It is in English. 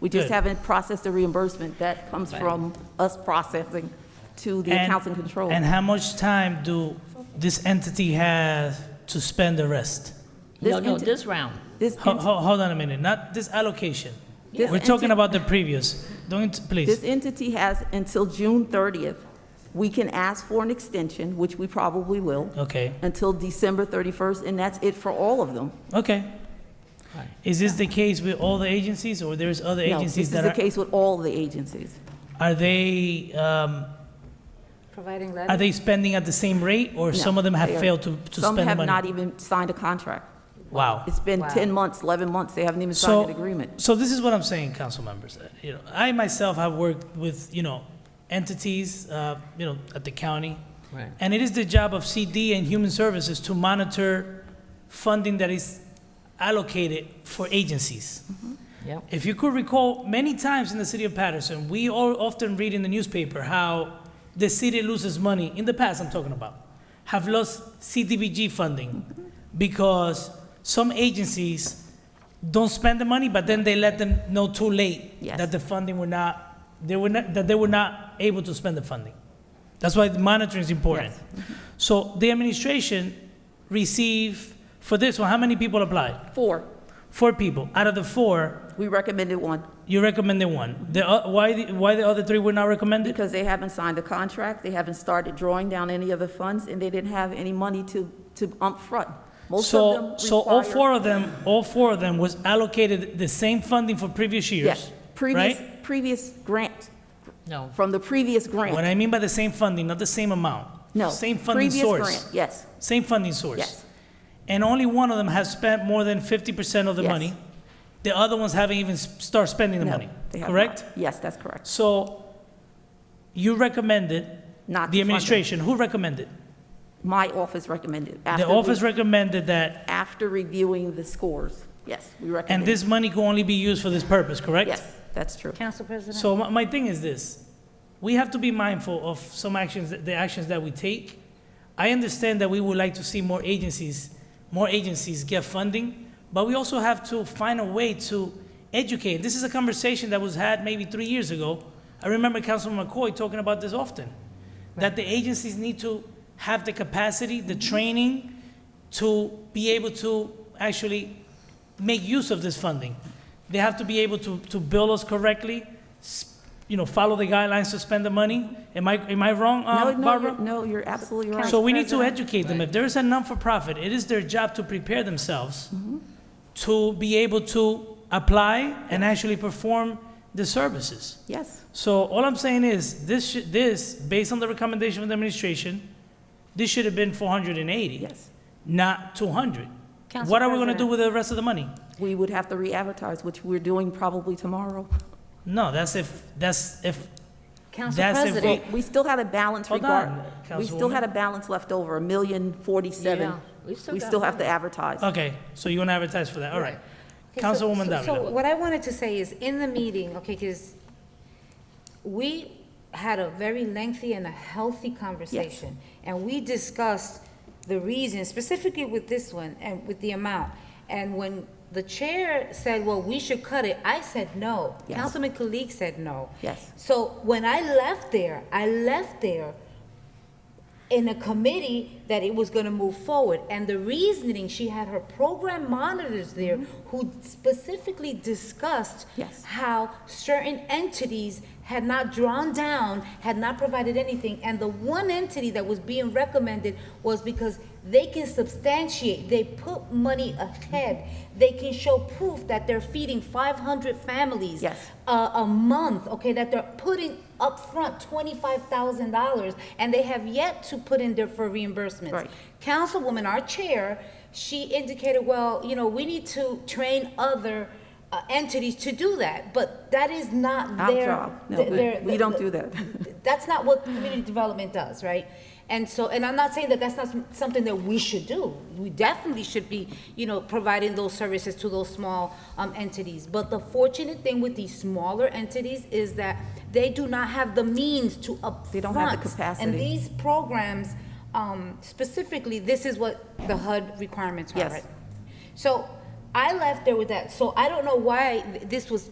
We just Good. haven't processed the reimbursement. That comes from us processing to the And- accounts and control. And how much time do this entity have to spend the rest? This No, no, enti- this round. This, Ho- ent- ho- Hold on a minute, not this allocation. This We're talking enti- about the previous. Don't, this please. entity has until June 30th. We can ask for an extension, which we probably will, Okay, until December 31st, and that's it for all of them. okay. Right. Is this the case with all the agencies, or there's other No, this is agencies that the are, case with all the agencies. are they, um, Providing are letters? they spending at the same rate, or No, some of them they have are- failed to, to Some spend the have not e- money? even signed a contract. Wow. It's been Wow. 10 months, 11 months, they haven't even So- signed an agreement. So this is what I'm saying, council members. Uh, You know, I myself have worked with, you know, entities, uh, you know, at the county. Right. And it is the job of CD and Human Services to monitor funding that is allocated for agencies. Yep. If you could recall, many times in the city of Patterson, we all often read in the newspaper how the city loses money, in the past I'm talking about, have lost CDBG funding because some agencies don't spend the money, but then they let them know too late Yes. that the funding were not, they were not, that they were not able to spend the funding. That's why the monitoring is important. So the administration receive, for this one, how many people applied? Four, Four people. Out of the four, we recommended one you recommended one. The, o- why, the- why the other three were not recommended? because they haven't signed a contract, they haven't started drawing down any of the funds, and they didn't have any money to, to upfront. Most of them So, require. so all four of them, all four of them was allocated the same funding for previous years, Yes, previous, right? previous grant, No. from the previous What grant, I mean by the same funding, not the same amount. no. Same funding previous source. grant, Yes, Same funding source. yes, And only one of them has spent more than 50% of the Yes. money. The other ones haven't even s- start spending the no. money, they have not. correct? Yes, that's correct. So you recommended, Not the to fund them. administration, who recommended? My office recommended. The after we- office recommended that, After reviewing the scores, yes, we recommended. and this Uh, money can only be used for this purpose, correct? Yes, that's true. Council President? So my, my thing is this, we have to be mindful of some actions, the actions that we take. I understand that we would like to see more agencies, more agencies get funding, but we also have to find a way to educate. This is a conversation that was had maybe three years ago. I remember Councilman McCoy talking about this often, that the agencies need to have the capacity, the training to be able to actually make use of this funding. They have to be able to, to bill us correctly, s- you know, follow the guidelines to spend the money. Am I, am I wrong, No, uh, no, Barbara? you're- no, you're absolutely right. So we need to educate them. If there is a non-for-profit, it is their job to prepare themselves Mm-hmm. to be able to apply and actually perform the services. Yes, So all I'm saying is, this, should- this, based on the recommendation of the administration, this should have been 480, yes. not 200. Council What are we going to do President. with the rest of the money? We would have to re-advertise, which we're doing probably tomorrow. No, that's if, that's if, Council that's if- President? We still had a balance Hold regard. on, We still had a balance left over, a million forty-seven. Yeah, we still We got still have to advertise. okay, so you want to advertise for that, all right. Okay, so- Councilwoman so- So Davila. what I wanted to say is, in the meeting, okay, because we had a very lengthy and a healthy conversation. And we discussed the reason, specifically with this one and with the amount. And when the chair said, well, we should cut it, I said no. Yes. Councilman Kalik said no. Yes. So when I left there, I left there in a committee that it was gonna move forward. And the reasoning, she had her program monitors there who specifically discussed Mm-hmm. Yes. how certain entities had not drawn down, had not provided anything. And the one entity that was being recommended was because they can substantiate, they put money ahead. They can show proof that they're feeding five hundred families Yes. a, a month, okay, that they're putting upfront twenty-five thousand dollars, and they have yet to put in there for reimbursements. Right. Councilwoman, our chair, she indicated, well, you know, we need to train other uh, entities to do that, but that is not Our their. job. No, th- we- their- we th- don't th- do that. That's not what community development does, right? And so, and I'm not saying that that's not som- something that we should do. We definitely should be, you know, providing those services to those small um, entities. But the fortunate thing with these smaller entities is that they do not have the means to upfront. They don't have the capacity. And these programs, um, specifically, this is what the HUD requirements are, Yes. right? So I left there with that. So I don't know why th- this was